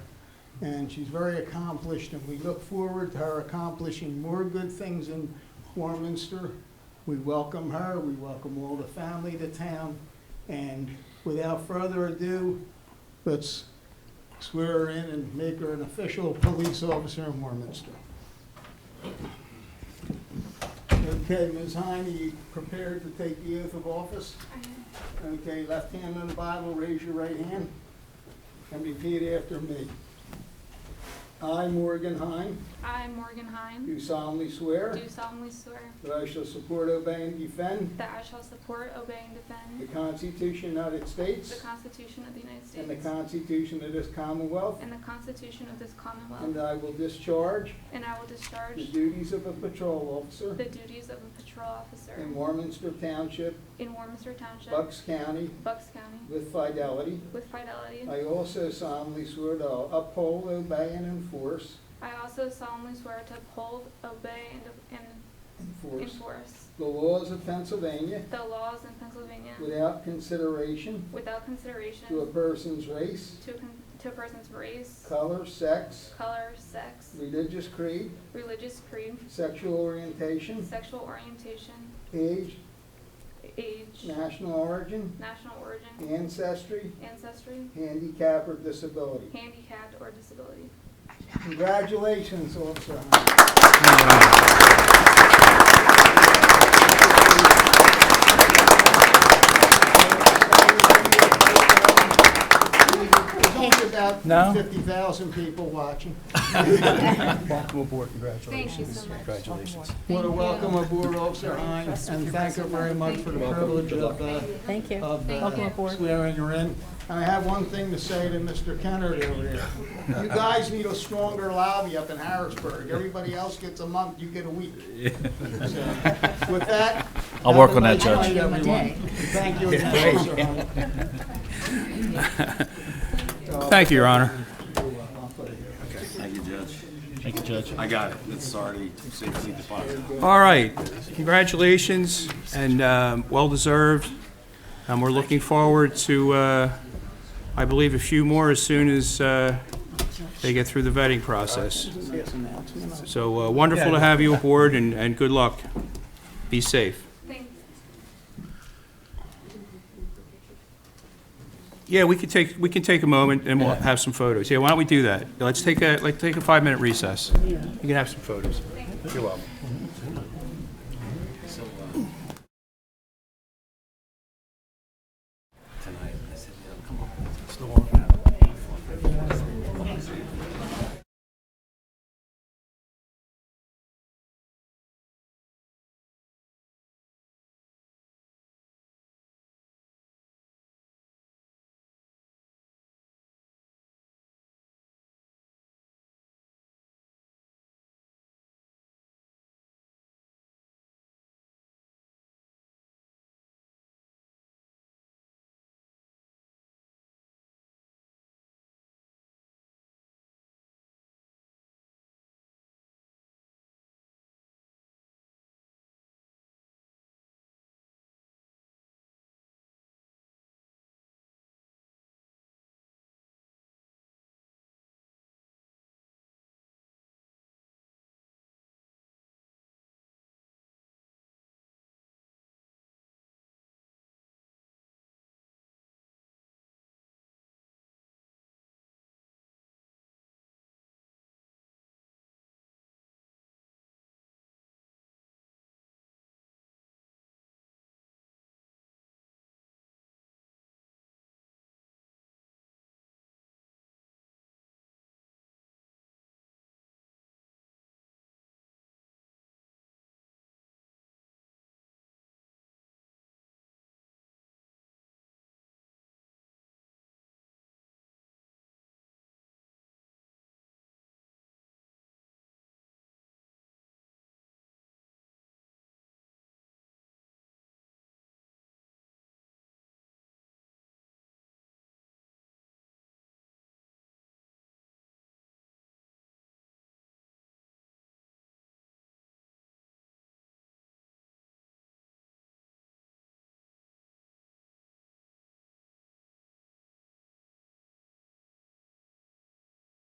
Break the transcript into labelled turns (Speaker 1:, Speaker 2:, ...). Speaker 1: and she's very accomplished, and we look forward to her accomplishing more good things in Warminster. We welcome her, we welcome all the family to town, and without further ado, let's swear her in and make her an official police officer in Warminster. Okay, Ms. Heine, you prepared to take the oath of office? Okay, left hand on the Bible, raise your right hand, and repeat after me. I, Morgan Heine,
Speaker 2: I, Morgan Hine,
Speaker 1: do solemnly swear
Speaker 2: do solemnly swear
Speaker 1: that I shall support, obey, and defend
Speaker 2: that I shall support, obey, and
Speaker 1: the
Speaker 2: defend
Speaker 1: Constitution of the United
Speaker 2: the
Speaker 1: States
Speaker 2: Constitution of the United
Speaker 1: and the
Speaker 2: States
Speaker 1: Constitution of this Commonwealth,
Speaker 2: and the Constitution of this
Speaker 1: and
Speaker 2: Commonwealth,
Speaker 1: that I will discharge
Speaker 2: and I will
Speaker 1: the
Speaker 2: discharge
Speaker 1: duties of a patrol officer
Speaker 2: the duties of a patrol officer
Speaker 1: in Warminster Township,
Speaker 2: in Warminster Township,
Speaker 1: Bucks County,
Speaker 2: Bucks County,
Speaker 1: with fidelity.
Speaker 2: with fidelity.
Speaker 1: I also solemnly swear to uphold, obey, and enforce,
Speaker 2: I also solemnly swear to uphold, obey, and- and
Speaker 1: enforce
Speaker 2: enforce
Speaker 1: the laws of Pennsylvania
Speaker 2: the laws in Pennsylvania
Speaker 1: without consideration
Speaker 2: without
Speaker 1: to a
Speaker 2: consideration
Speaker 1: person's race,
Speaker 2: to a con- to a person's race,
Speaker 1: color, sex,
Speaker 2: color, sex,
Speaker 1: religious creed,
Speaker 2: religious creed,
Speaker 1: sexual orientation,
Speaker 2: sexual orientation,
Speaker 1: age,
Speaker 2: age,
Speaker 1: national origin,
Speaker 2: national origin,
Speaker 1: ancestry,
Speaker 2: ancestry,
Speaker 1: handicap, or disability.
Speaker 2: handicapped, or disability.
Speaker 1: Congratulations, Officer Hunt. There's only
Speaker 3: No?
Speaker 1: About 50,000 people watching.
Speaker 3: Welcome aboard,
Speaker 2: Thank you so much.
Speaker 3: Congratulations.
Speaker 1: Want to welcome aboard Officer Hines and thank her very much for the privilege of uh,
Speaker 4: Thank you.
Speaker 1: of
Speaker 4: Welcome
Speaker 1: uh,
Speaker 4: aboard.
Speaker 1: swearing her in. And I have one thing to say to Mr. Kennard over there. You guys need a stronger lobby up in Harrisburg. Everybody else gets a month, you get a week. So, With that.
Speaker 3: I'll
Speaker 1: have
Speaker 3: work
Speaker 1: a
Speaker 3: on that,
Speaker 1: nice
Speaker 3: Judge.
Speaker 1: night, everyone. Thank you again, Officer Hunt.
Speaker 3: Thank you, Your Honor.
Speaker 1: uh,
Speaker 5: Thank you, Judge.
Speaker 3: Thank you, Judge.
Speaker 5: I got it. It's already safely deposited.
Speaker 3: All right, congratulations and um, well-deserved. And we're looking forward to, uh, I believe, a few more as soon as uh, they get through the vetting process. So uh, wonderful to have you aboard and, and good luck. Be safe.
Speaker 2: Thanks.
Speaker 3: Yeah, we could take, we can take a moment and we'll have some photos. Yeah, why don't we do that? Let's take a, like, take a five-minute recess. You can have some photos. You're welcome.